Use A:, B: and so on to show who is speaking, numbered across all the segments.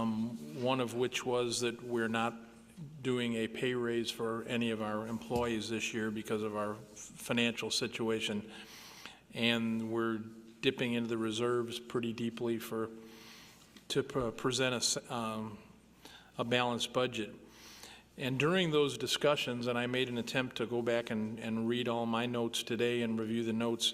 A: Um, one of which was that we're not doing a pay raise for any of our employees this year because of our f- financial situation. And we're dipping into the reserves pretty deeply for, to pre- present a, s- um, a balanced budget. And during those discussions, and I made an attempt to go back and, and read all my notes today and review the notes,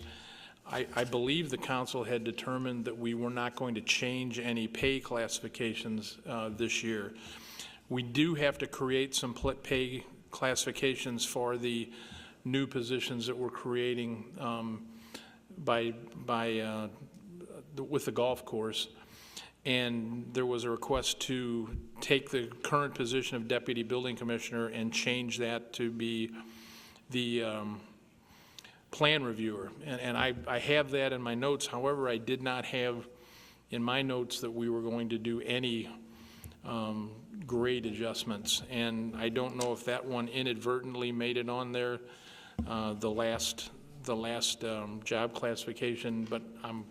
A: I, I believe the council had determined that we were not going to change any pay classifications uh, this year. We do have to create some pl- pay classifications for the new positions that we're creating um, by, by, uh, the- with the golf course. And there was a request to take the current position of deputy building commissioner and change that to be the um, plan reviewer. And, and I, I have that in my notes. However, I did not have in my notes that we were going to do any um, grade adjustments. And I don't know if that one inadvertently made it on there, uh, the last, the last um, job classification, but I'm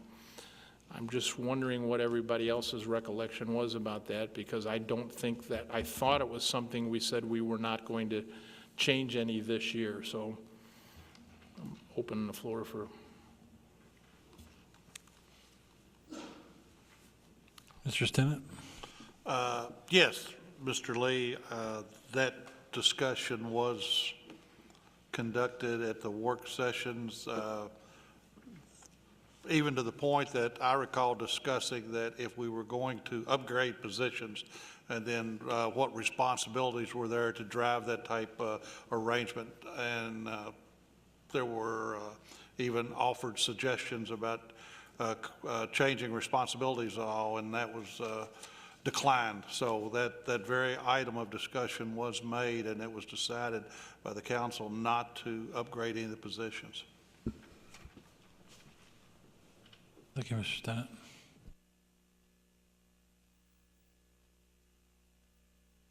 A: I'm just wondering what everybody else's recollection was about that, because I don't think that, I thought it was something we said we were not going to change any this year, so I'm opening the floor for,
B: Mr. Stimmett?
C: Uh, Yes, Mr. Lee, uh, that discussion was conducted at the work sessions, uh, even to the point that I recall discussing that if we were going to upgrade positions, and then uh, what responsibilities were there to drive that type uh, arrangement. And uh, there were uh, even offered suggestions about uh, c- uh, changing responsibilities and all, and that was uh, declined. So that, that very item of discussion was made, and it was decided by the council not to upgrade any of the positions.
B: Thank you, Mr. Stimmett.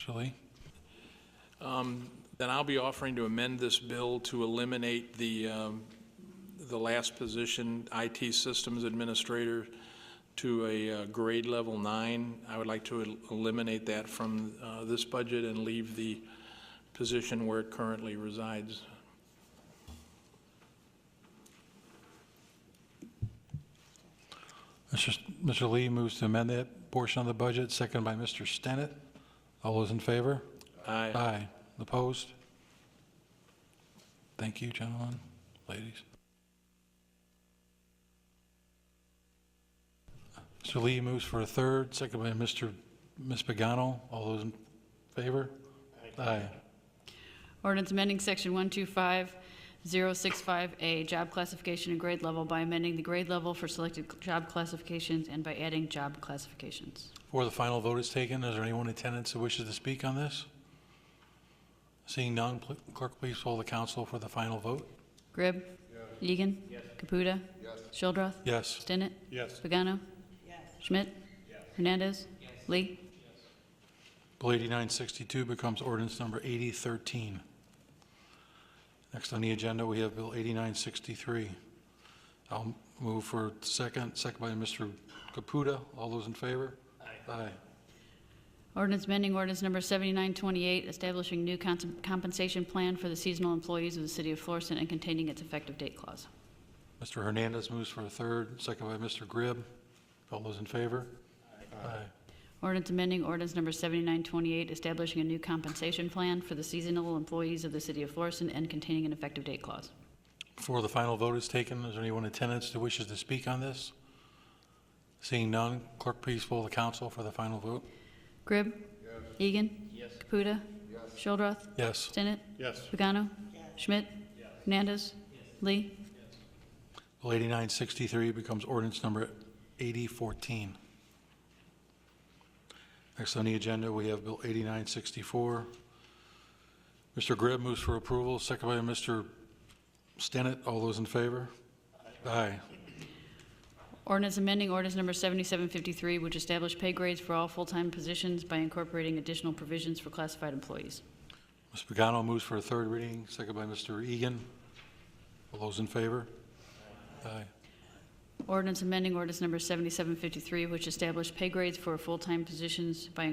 B: Mr. Lee?
A: then I'll be offering to amend this bill to eliminate the, um, the last position, IT Systems Administrator, to a uh, grade level nine. I would like to el- eliminate that from uh, this budget and leave the position where it currently resides.
B: Mr. S- Mr. Lee moves to amend that portion of the budget, seconded by Mr. Stinnett. All those in favor?
A: Aye.
B: Aye. Opposed? Thank you, gentlemen, ladies. Mr. Lee moves for a third, seconded by Mr. Ms. Pagano. All those in favor? Aye.
D: Ordinance amending Section 125065A, job classification and grade level by amending the grade level for selected cl- job classifications and by adding job classifications.
B: Before the final vote is taken, is there anyone in attendance who wishes to speak on this? Seeing none, pl- clerk, please poll the council for the final vote.
D: Gribb? Egan? Caputa? Shildroth?
B: Yes.
D: Stinnett?
C: Yes.
D: Pagano? Schmidt? Hernandez? Lee?
B: Bill 8962 becomes ordinance number 8013. Next on the agenda, we have Bill 8963. I'll move for second, second by Mr. Caputa. All those in favor? Aye. Aye.
D: Ordinance amending ordinance number 7928, establishing new cons- compensation plan for the seasonal employees of the city of Florissant and containing its effective date clause.
B: Mr. Hernandez moves for a third, second by Mr. Gribb. All those in favor? Aye.
D: Ordinance amending ordinance number 7928, establishing a new compensation plan for the seasonal employees of the city of Florissant and containing an effective date clause.
B: Before the final vote is taken, is there anyone in attendance that wishes to speak on this? Seeing none, clerk, please poll the council for the final vote.
D: Gribb? Egan? Caputa? Shildroth?
B: Yes.
D: Stinnett?
C: Yes.
D: Pagano? Schmidt? Hernandez? Lee?
B: Bill 8963 becomes ordinance number 8014. Next on the agenda, we have Bill 8964. Mr. Gribb moves for approval, second by Mr. Stinnett. All those in favor? Aye.
D: Ordinance amending ordinance number 7753, which established pay grades for all full-time positions by incorporating additional provisions for classified employees.
B: Ms. Pagano moves for a third reading, second by Mr. Egan. All those in favor? Aye.
D: Ordinance amending ordinance number 7753, which established pay grades for full-time positions by